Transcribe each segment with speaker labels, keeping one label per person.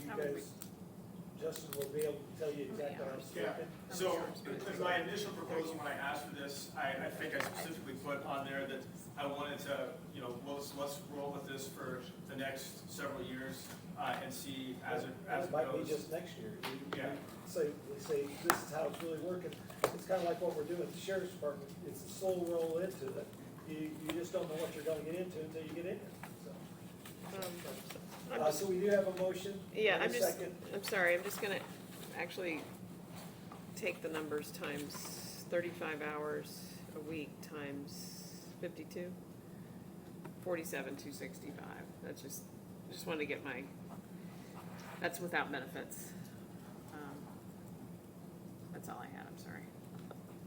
Speaker 1: because Justin will be able to tell you exactly how it's
Speaker 2: Yeah.
Speaker 1: going.
Speaker 2: So, because my initial proposal when I asked for this, I, I think I specifically put on there that I wanted to, you know, let's, let's roll with this for the next several years, uh, and see as it, as it
Speaker 1: might be
Speaker 2: goes.
Speaker 1: just next year. You- you
Speaker 2: Yeah.
Speaker 1: Say, we say, this is how it's really working. It's kind of like what we're doing at the sheriff's department. It's a slow roll into it. You, you just don't know what you're gonna get into until you get in it, so.
Speaker 3: I'm
Speaker 1: Uh, so we do have a motion.
Speaker 3: Yeah,
Speaker 1: and a
Speaker 3: I'm just,
Speaker 1: second.
Speaker 3: I'm sorry, I'm just gonna actually take the numbers times thirty-five hours a week times fifty-two. Forty-seven, two sixty-five, that's just, just wanted to get my, that's without benefits. Um, That's all I had, I'm sorry.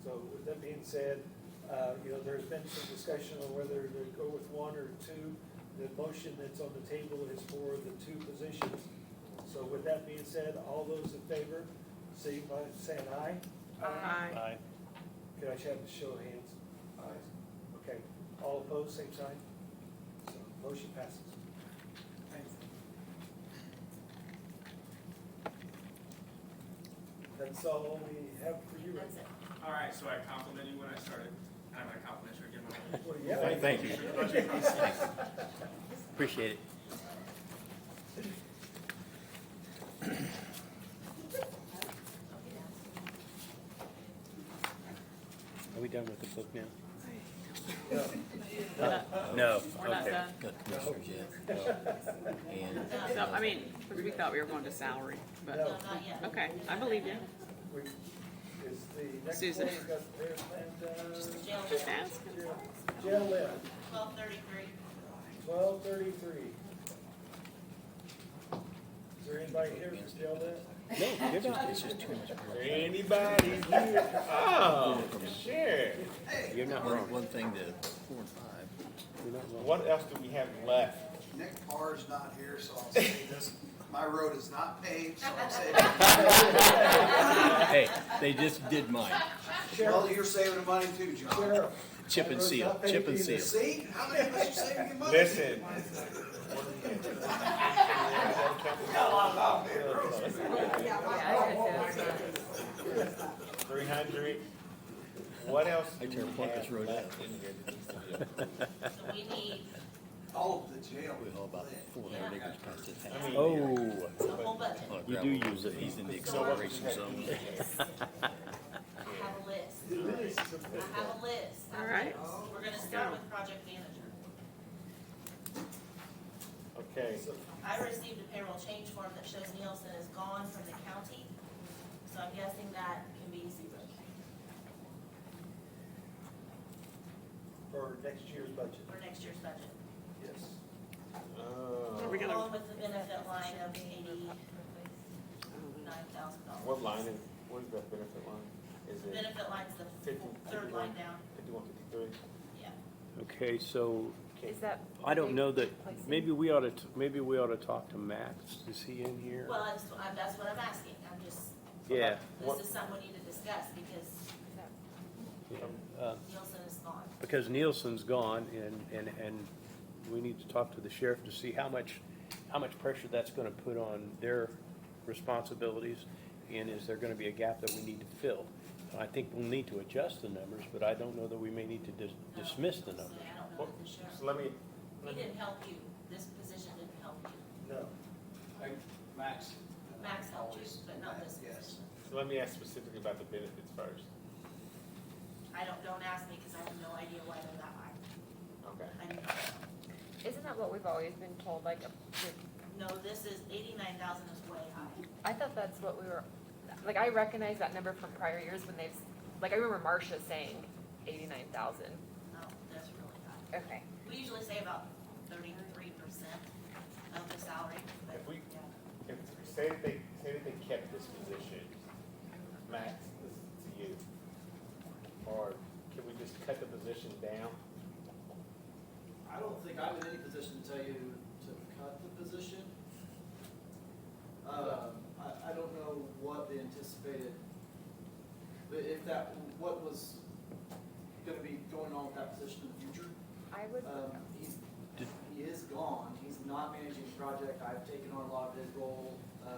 Speaker 1: So with that being said, uh, you know, there's been some discussion on whether to go with one or two. The motion that's on the table is for the two positions. So with that being said, all those in favor, signify by saying aye.
Speaker 3: Aye.
Speaker 4: Aye.
Speaker 1: Could I just have a show of hands? Aye. Okay, all opposed, same sign? So motion passes.
Speaker 2: Thank you.
Speaker 1: That's all we have for you right
Speaker 5: That's it.
Speaker 2: All right, so I complimented you when I started, and I'm gonna compliment you again. when I-
Speaker 1: now. Well, yeah.
Speaker 4: Thank you.
Speaker 2: for the budget process.
Speaker 4: Appreciate it. Are we done with the book now?
Speaker 1: No.
Speaker 3: We're not-
Speaker 4: No.
Speaker 3: We're not
Speaker 4: okay.
Speaker 3: done.
Speaker 6: Got commissioners yet. And
Speaker 3: So, I mean, 'cause we thought we were going to salary,
Speaker 5: No,
Speaker 3: but,
Speaker 1: No.
Speaker 5: not yet.
Speaker 3: okay, I believe you.
Speaker 1: We, is the next
Speaker 3: Susan.
Speaker 1: one, we got their plan,
Speaker 5: Jail,
Speaker 3: Just ask.
Speaker 1: uh, jail left.
Speaker 5: twelve thirty-three.
Speaker 1: Twelve thirty-three. Is there anybody here for jail debt?
Speaker 4: No, you're not,
Speaker 6: it's just too much work.
Speaker 4: anybody here? Oh, sure. You're not
Speaker 6: One,
Speaker 4: wrong.
Speaker 6: one thing to four and five.
Speaker 4: You're not wrong. What else do we have left?
Speaker 7: Nick Parr's not here, so I'll say this, my road is not paved, so I'm saving.
Speaker 6: Hey, they just did mine.
Speaker 7: Well, you're saving money too, John.
Speaker 1: Sheriff,
Speaker 6: Chip and seal, chip and seal.
Speaker 7: See, how many of us are saving your money?
Speaker 4: Listen.
Speaker 8: Three hundred. What else
Speaker 6: I
Speaker 8: do we
Speaker 6: tear Plunkett
Speaker 8: have
Speaker 6: Road
Speaker 8: left in here that needs to be updated?
Speaker 5: So we need
Speaker 7: All of Oh, the jail.
Speaker 6: We haul about four hundred acres past this
Speaker 8: I
Speaker 6: house.
Speaker 8: mean,
Speaker 4: Oh,
Speaker 5: the whole budget.
Speaker 6: Well,
Speaker 4: You do
Speaker 6: gravel,
Speaker 4: use it.
Speaker 6: He's in the
Speaker 5: So what we
Speaker 6: acceleration zone.
Speaker 5: I have a list.
Speaker 1: this is a
Speaker 5: I
Speaker 1: big
Speaker 5: have a list.
Speaker 3: All right.
Speaker 5: We're gonna start with project manager.
Speaker 8: Okay,
Speaker 1: one. So,
Speaker 5: I received a payroll change form that shows Nielsen is gone from the county, so I'm guessing that can be zero.
Speaker 1: For next year's budget,
Speaker 5: for next year's budget.
Speaker 1: yes.
Speaker 3: Are
Speaker 8: uh,
Speaker 3: we gonna,
Speaker 5: Along with the benefit line of eighty-nine thousand dollars.
Speaker 8: what line is, what is that benefit line? Is it
Speaker 5: Benefit line's the
Speaker 8: fifty,
Speaker 5: third line
Speaker 8: fifty-one,
Speaker 5: down,
Speaker 8: fifty-one, fifty-three?
Speaker 5: yeah.
Speaker 4: okay, so
Speaker 8: Is
Speaker 9: that?
Speaker 4: I don't know that, maybe we ought to, maybe we ought to talk to Max. Is he in here?
Speaker 5: Well, that's, I'm- that's what I'm asking, I'm just,
Speaker 4: Yeah.
Speaker 5: this is something we need to discuss, because
Speaker 4: yeah, uh,
Speaker 5: Nielsen is gone.
Speaker 4: Because Nielsen's gone and, and, and we need to talk to the sheriff to see how much, how much pressure that's gonna put on their responsibilities and is there gonna be a gap that we need to fill? I think we'll need to adjust the numbers, but I don't know that we may need to dis-
Speaker 5: No.
Speaker 4: dismiss the
Speaker 5: So
Speaker 4: numbers.
Speaker 5: I don't know if the sheriff,
Speaker 8: So let me,
Speaker 5: we didn't help you, this position didn't help you,
Speaker 1: No.
Speaker 7: Max.
Speaker 5: Max helped you, but not this
Speaker 7: Yes.
Speaker 5: position.
Speaker 8: so let me ask specifically about the benefits first.
Speaker 5: I don't, don't ask me, because I have no idea why they're that high.
Speaker 8: Okay.
Speaker 5: I don't know.
Speaker 9: Isn't that what we've always been told, like,
Speaker 5: No, this is, eighty-nine thousand is way high.
Speaker 9: I thought that's what we were, like, I recognize that number from prior years when they've, like, I remember Marcia saying eighty-nine thousand.
Speaker 5: No, that's really high.
Speaker 9: Okay.
Speaker 5: We usually say about thirty-three percent of the salary, but,
Speaker 8: If we-
Speaker 5: yeah.
Speaker 8: If, say that they, say that they kept this position, Max, this is to you. Or can we just cut the position down?
Speaker 10: I don't think I'm in any position to tell you to cut the position. Um, I, I don't know what the anticipated, but if that, what was gonna be going on with that position in the future.
Speaker 9: I would,
Speaker 10: Um, he's, he is gone, he's not managing the project, I've taken on a lot of his role, uh,